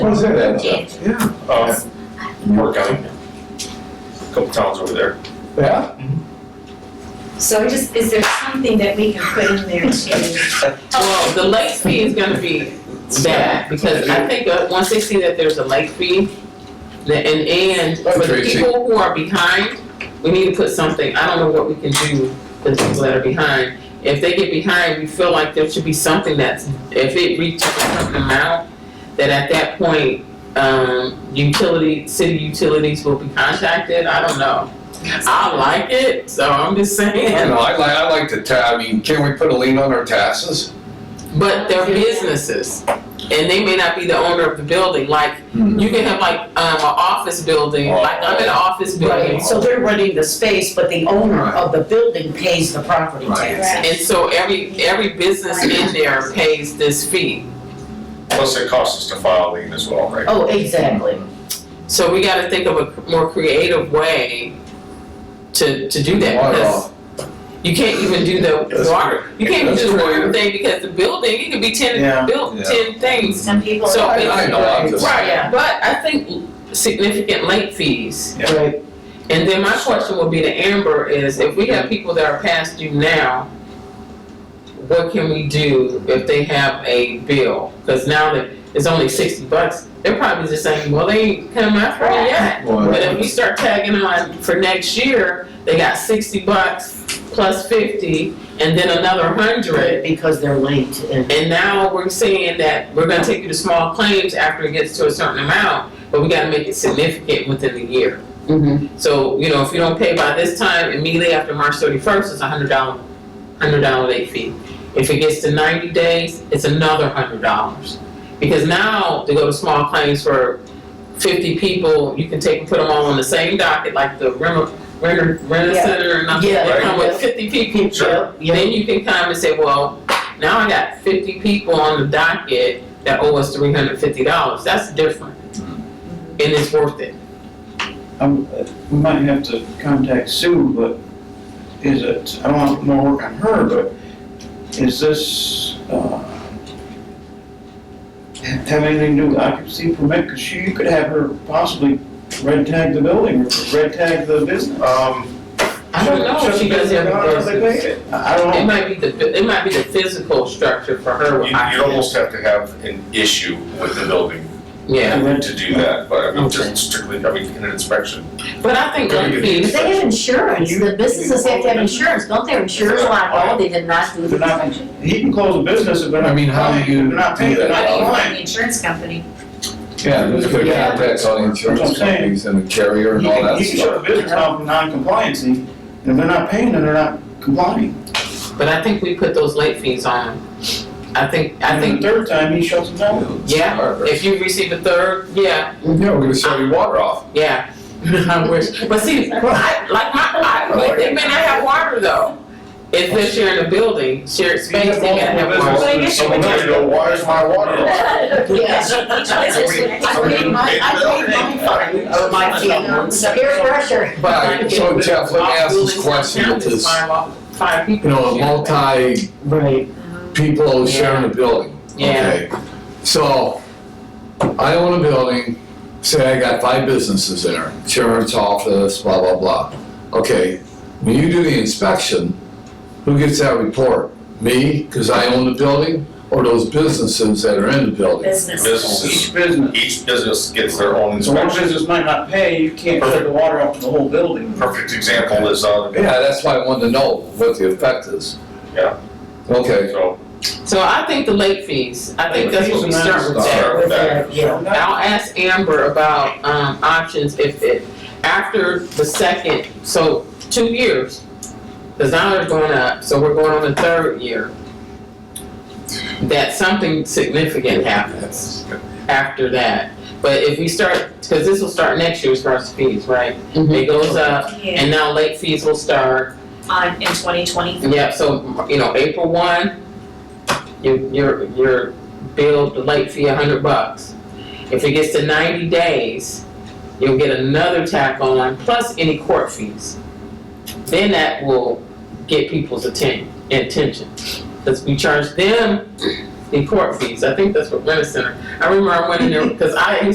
What is that? Yeah. Yeah. Uh, York County. Couple towns over there. Yeah? So just, is there something that we can put in there to? Well, the late fee is gonna be bad, because I think at one sixty that there's a late fee. The- And, and for the Tracy. people who are behind, we need to put something, I don't know what we can do for the people that are behind. If they get behind, we feel like there should be something that's, if it reaches a certain amount, that at that point, um, utility, city utilities will be contacted, I don't know. I like it, so I'm just I saying, know, I like, I like the ta, I mean, can we put a lien on our taxes? but they're businesses, and they may not be the owner of the building, like, You can have like um, an office building, like I'm in an office Right, building, so they're renting the space, but the owner of the building pays the property Right. tax. and so every every business in there pays this fee. Plus it costs us to file a lien as well, right? Oh, exactly. So we got to think of a more creative way to to do that Water because off. you can't even do the That's water. You can't even That's do the water creative. thing because the building it could be ten Yeah. built Yeah. ten things. Some people. So I- I know, I'm just- right, Yeah. but I think significant late fees. Right, And then my question would be to Amber is, if we have people that are past due now, what can we do if they have a bill? Cause now that it's only sixty bucks, they're probably just saying, well, they ain't come after me yet. But if we start tagging on for next year, they got sixty bucks plus fifty, and then another hundred. Because they're linked and, And now we're saying that we're gonna take you to small claims after it gets to a certain amount, but we gotta make it significant within the year. Mm-hmm. Mhm. So, you know, if you don't pay by this time, immediately after March thirty-first, it's a hundred dollar, hundred dollar late fee. If it gets to ninety days, it's another hundred dollars. Because now, to go to small claims for fifty people, you can take and put them all on the same docket, like the Rena, Rena, Rena Yeah. Center and nothing, Yeah. they come Right. with fifty people. Yep, yep. Then you can come and say, well, now I got fifty people on the docket that owe us three hundred fifty dollars, that's different. And it's worth it. I'm, Um, we might have to contact Sue, but is it, I don't want more work on her, but is this, uh, have anything to do with occupancy permit, cause she, you could have her possibly red tag the building, or red tag the business. Um, I don't know if she does have I a don't think business. they- I It don't know, might be the, it might be the physical structure for her. you, with you'd oxygen. almost have to have an issue with the building Yeah, to do that, but I mean, just strictly, I mean, in an inspection. but I think Very late good. fees, They have insurance, the businesses have to have insurance, don't they have insurance on, oh, they did not do the They're not- inspection. he can close a business if they're not. I mean, how do you They're not do paying, they're that? not find applying. the insurance company? Yeah, there's good Yeah. contacts on insurance That's what I'm saying. companies and the carrier You and all can, that you can shut stuff. the business down for non-compliance, and if they're not paying, then they're not complying. but I think we put those late fees on. I think, I And think, the third time, he shuts them down. Yeah, if you receive a third, yeah, Yeah, we're gonna shut your water off. yeah. I wish, but see, I, like my, I, like, they may not have water though. If they're sharing a building, shared space, they gotta have water. Well, I guess you Someone would- might go, why is my water off? Yes. I paid my, I paid my fine. Oh, my God. Peer pressure. But, I- so Jeff, let me ask this question with this, Five, off- five people. you know, a multi, right. people sharing a building. Yeah, Okay. So, I own a building, say I got five businesses there, insurance office, blah, blah, blah. Okay, when you do the inspection, who gets that report? Me, because I own the building, or those businesses that are in the building? Businesses, Each business, each business gets their own so one inspection. business might not pay, you can't shut the water off to the whole building. Perfect example is, uh, Yeah, that's why I wanted to know what the effect is. Yeah. Okay, so, so I think the late fees, I think that's what we start with that. start with that. Yeah. I'll ask Amber about, um, options if it, after the second, so two years. Cause now they're going up, so we're going on the third year. That something significant happens after that. But if we start, cause this will start next year as far as fees, right? It goes up Yeah, and now late fees will start. on, in twenty twenty. Yeah, so, you know, April one, your, your, your bill, the late fee, a hundred bucks. If it gets to ninety days, you'll get another tack on, plus any court fees. Then that will get people's atten- attention, cause we charge them the court fees. I think that's what Rent-A-Center, I remember I went in there, because I used